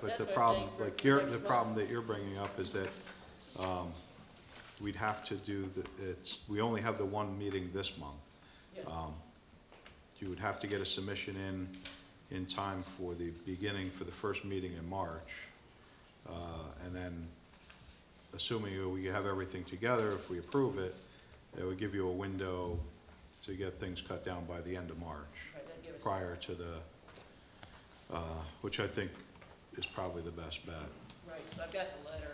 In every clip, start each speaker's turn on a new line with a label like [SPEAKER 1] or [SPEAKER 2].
[SPEAKER 1] But
[SPEAKER 2] That's
[SPEAKER 1] the
[SPEAKER 2] what I'm
[SPEAKER 1] problem,
[SPEAKER 2] saying for
[SPEAKER 1] like you're,
[SPEAKER 2] next
[SPEAKER 1] the
[SPEAKER 2] month.
[SPEAKER 1] problem that you're bringing up is that, um, we'd have to do the, it's, we only have the one meeting this month.
[SPEAKER 2] Yes.
[SPEAKER 1] Um, You would have to get a submission in, in time for the beginning, for the first meeting in March. Uh, and then, assuming we have everything together, if we approve it, it would give you a window to get things cut down by the end of March
[SPEAKER 2] Right, that'd give us-
[SPEAKER 1] prior to the, uh, which I think is probably the best bet.
[SPEAKER 2] Right, so I've got the letter,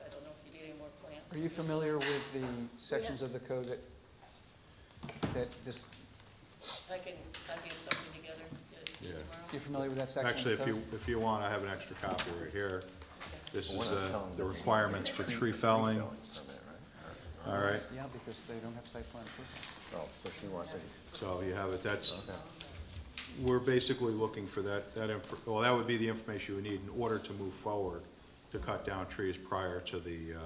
[SPEAKER 2] I don't know if you need any more plants.
[SPEAKER 3] Are you familiar with the sections of the code that, that this,
[SPEAKER 2] I can, I can get something together, get it to you
[SPEAKER 1] Yeah.
[SPEAKER 3] you
[SPEAKER 2] tomorrow.
[SPEAKER 3] familiar with that section? of the
[SPEAKER 1] Actually, if
[SPEAKER 3] code?
[SPEAKER 1] you, if you want, I have an extra copy right here. This is uh,
[SPEAKER 4] We're not
[SPEAKER 1] the,
[SPEAKER 4] telling
[SPEAKER 1] the
[SPEAKER 4] them.
[SPEAKER 1] requirements for tree felling,
[SPEAKER 4] permit,
[SPEAKER 1] all right?
[SPEAKER 3] Yeah, because they don't have site plan approval.
[SPEAKER 4] right? Oh, so she wants it,
[SPEAKER 1] So you have it, that's,
[SPEAKER 4] okay.
[SPEAKER 1] we're basically looking for that, that, inf- well, that would be the information we need in order to move forward to cut down trees prior to the, uh,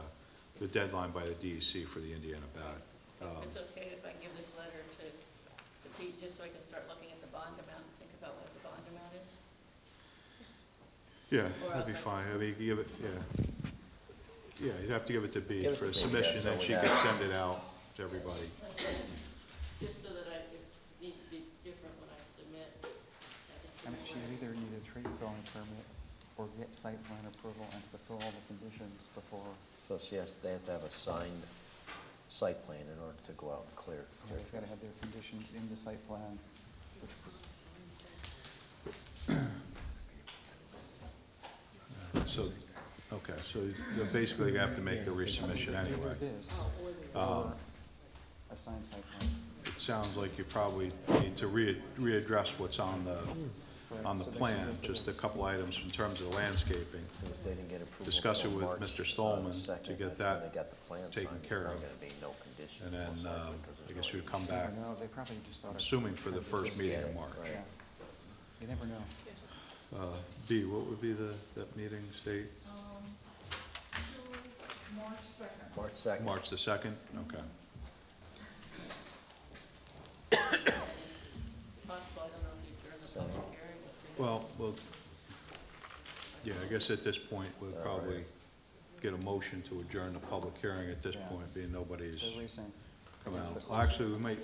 [SPEAKER 1] the deadline by the DEC for the Indiana bat.
[SPEAKER 2] If
[SPEAKER 1] Um,
[SPEAKER 2] It's okay if I give this letter to, to Pete, just so I can start looking at the bond amount and think about what the bond amount is?
[SPEAKER 1] Yeah, that'd be fine, I mean, you give it, yeah. Yeah, you'd have to give it to B
[SPEAKER 3] Give it
[SPEAKER 1] for
[SPEAKER 3] to
[SPEAKER 1] a
[SPEAKER 3] Bea,
[SPEAKER 1] submission,
[SPEAKER 4] yeah,
[SPEAKER 1] and
[SPEAKER 4] so
[SPEAKER 1] she
[SPEAKER 4] we
[SPEAKER 1] could
[SPEAKER 4] have-
[SPEAKER 1] send it out to everybody.
[SPEAKER 2] Just so that I, it needs to be different when I submit. I can
[SPEAKER 3] I
[SPEAKER 2] submit
[SPEAKER 3] mean, she
[SPEAKER 2] what I-
[SPEAKER 3] either need a tree felling permit or get site plan approval and fulfill all the conditions before.
[SPEAKER 4] So she has, they have to have a signed site plan in order to go out and clear.
[SPEAKER 3] yeah, They've gotta have their conditions in the site plan.
[SPEAKER 1] So, okay, so you're basically gonna have to make the resubmission anyway.
[SPEAKER 3] It is,
[SPEAKER 1] Um,
[SPEAKER 3] a signed site plan.
[SPEAKER 1] It sounds like you probably need to re- readdress what's on the, on the
[SPEAKER 3] So they should
[SPEAKER 1] plan,
[SPEAKER 3] look at
[SPEAKER 1] just a
[SPEAKER 3] this.
[SPEAKER 1] couple items in terms of landscaping.
[SPEAKER 4] And if they didn't get approval
[SPEAKER 1] Discuss it
[SPEAKER 4] till
[SPEAKER 1] with
[SPEAKER 4] March,
[SPEAKER 1] Mr.
[SPEAKER 4] uh,
[SPEAKER 1] Stallman to
[SPEAKER 4] 2nd,
[SPEAKER 1] get
[SPEAKER 4] that's when
[SPEAKER 1] that
[SPEAKER 4] they got the plan
[SPEAKER 1] taken
[SPEAKER 4] signed,
[SPEAKER 1] care
[SPEAKER 4] there's
[SPEAKER 1] of.
[SPEAKER 4] Gonna be no conditions.
[SPEAKER 1] And then,
[SPEAKER 4] most
[SPEAKER 1] um,
[SPEAKER 4] likely, 'cause
[SPEAKER 1] I
[SPEAKER 4] there's
[SPEAKER 1] guess
[SPEAKER 4] no
[SPEAKER 1] you'd come
[SPEAKER 3] You never
[SPEAKER 1] back,
[SPEAKER 3] know, they probably just thought. it-
[SPEAKER 1] assuming for the first meeting in March.
[SPEAKER 3] Yeah. You never know.
[SPEAKER 1] Uh, D, what would be the, that meeting date?
[SPEAKER 5] Um, to March second.
[SPEAKER 4] March second.
[SPEAKER 1] March the second? Okay.
[SPEAKER 2] Possible, I don't know if you turn the public hearing. but they-
[SPEAKER 1] Well, well, yeah, I guess at this point, we'll
[SPEAKER 4] All
[SPEAKER 1] probably
[SPEAKER 4] right.
[SPEAKER 1] get a motion to adjourn the public hearing at this
[SPEAKER 3] Yeah.
[SPEAKER 1] point, being nobody's
[SPEAKER 3] They're racing.
[SPEAKER 1] come
[SPEAKER 3] against
[SPEAKER 1] out.
[SPEAKER 3] the
[SPEAKER 1] Well,
[SPEAKER 3] clock.
[SPEAKER 1] Actually, we might,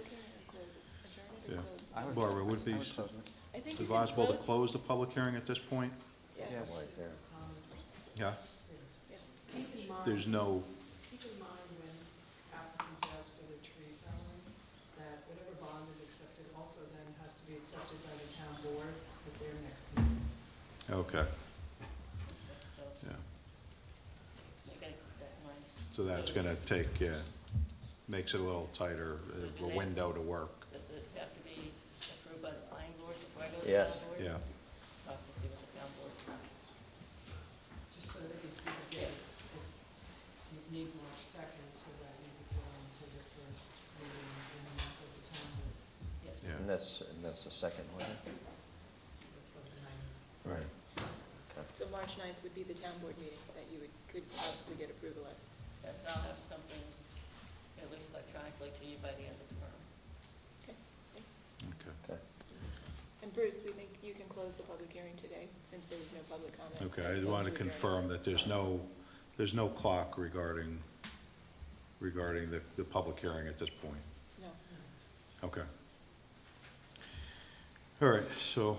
[SPEAKER 1] yeah.
[SPEAKER 3] I would-
[SPEAKER 1] Barbara, would it be
[SPEAKER 3] I close it.
[SPEAKER 6] I think you should
[SPEAKER 1] advisable to
[SPEAKER 6] close,
[SPEAKER 1] close the public hearing at this point?
[SPEAKER 3] Yes.
[SPEAKER 4] Right there.
[SPEAKER 1] Yeah?
[SPEAKER 5] Keep in
[SPEAKER 6] Um,
[SPEAKER 1] There's
[SPEAKER 5] mind,
[SPEAKER 1] no,
[SPEAKER 5] keep in mind when applicants ask for the tree felling, that whatever bond is accepted also then has to be accepted by the town board at their next meeting.
[SPEAKER 1] okay,
[SPEAKER 2] So,
[SPEAKER 1] yeah.
[SPEAKER 2] I gotta keep that in mind.
[SPEAKER 1] So that's gonna take, yeah, makes it a little tighter, uh, a window to work,
[SPEAKER 2] Does it have to be approved by the planning board before I go to the
[SPEAKER 4] Yes.
[SPEAKER 2] town board?
[SPEAKER 1] yeah.
[SPEAKER 2] I'll have to see what the town board,
[SPEAKER 5] Just so that you see the dates, you need March second so that you can go into the first meeting in the month of the town board.
[SPEAKER 2] yes.
[SPEAKER 1] Yeah.
[SPEAKER 4] And that's, and that's the second one.
[SPEAKER 5] So that's what the nine.
[SPEAKER 1] Right.
[SPEAKER 6] so March 9th would be the town board meeting that you would, could possibly get approval at.
[SPEAKER 2] Yes, I'll have something, at least electronically to you by the end of tomorrow.
[SPEAKER 1] Okay,
[SPEAKER 6] And Bruce, we think you can close the public hearing today, since there was no public comment.
[SPEAKER 1] okay, I
[SPEAKER 6] as
[SPEAKER 1] just wanted to
[SPEAKER 6] opposed a
[SPEAKER 1] confirm that there's no, there's no clock regarding, regarding the, the public hearing at this point.
[SPEAKER 6] hearing. No.
[SPEAKER 1] Okay. All right, so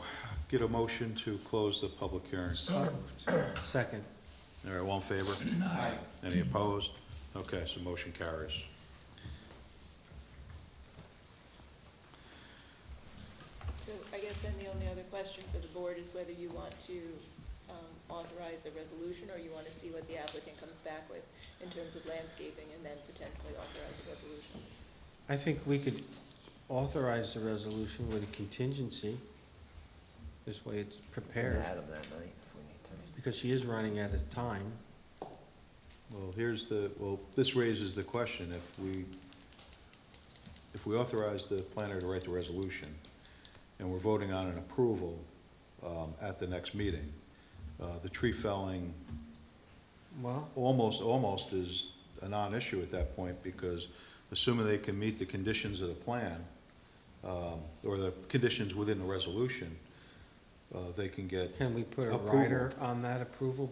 [SPEAKER 1] get a motion to close the public hearing.
[SPEAKER 7] Second.
[SPEAKER 1] All right, all in favor? Aye. Any opposed? Okay, so motion carries.
[SPEAKER 6] So I guess then the only other question for the board is whether you want to um, authorize a resolution, or you want to see what the applicant comes back with in terms of landscaping, and then potentially authorize a resolution.
[SPEAKER 7] I think we could authorize the resolution with a contingency. This way it's prepared,
[SPEAKER 4] Adam that night if we need to.
[SPEAKER 7] because she is running out of time.
[SPEAKER 1] Well, here's the, well, this raises the question, if we, if we authorize the planner to write the resolution, and we're voting on an approval, um, at the next meeting, uh, the tree felling
[SPEAKER 7] Well,
[SPEAKER 1] almost, almost is a non-issue at that point, because assuming they can meet the conditions of the plan, um, or the conditions within the resolution, uh, they can get
[SPEAKER 7] Can we put a
[SPEAKER 1] Approval.
[SPEAKER 7] rider on that approval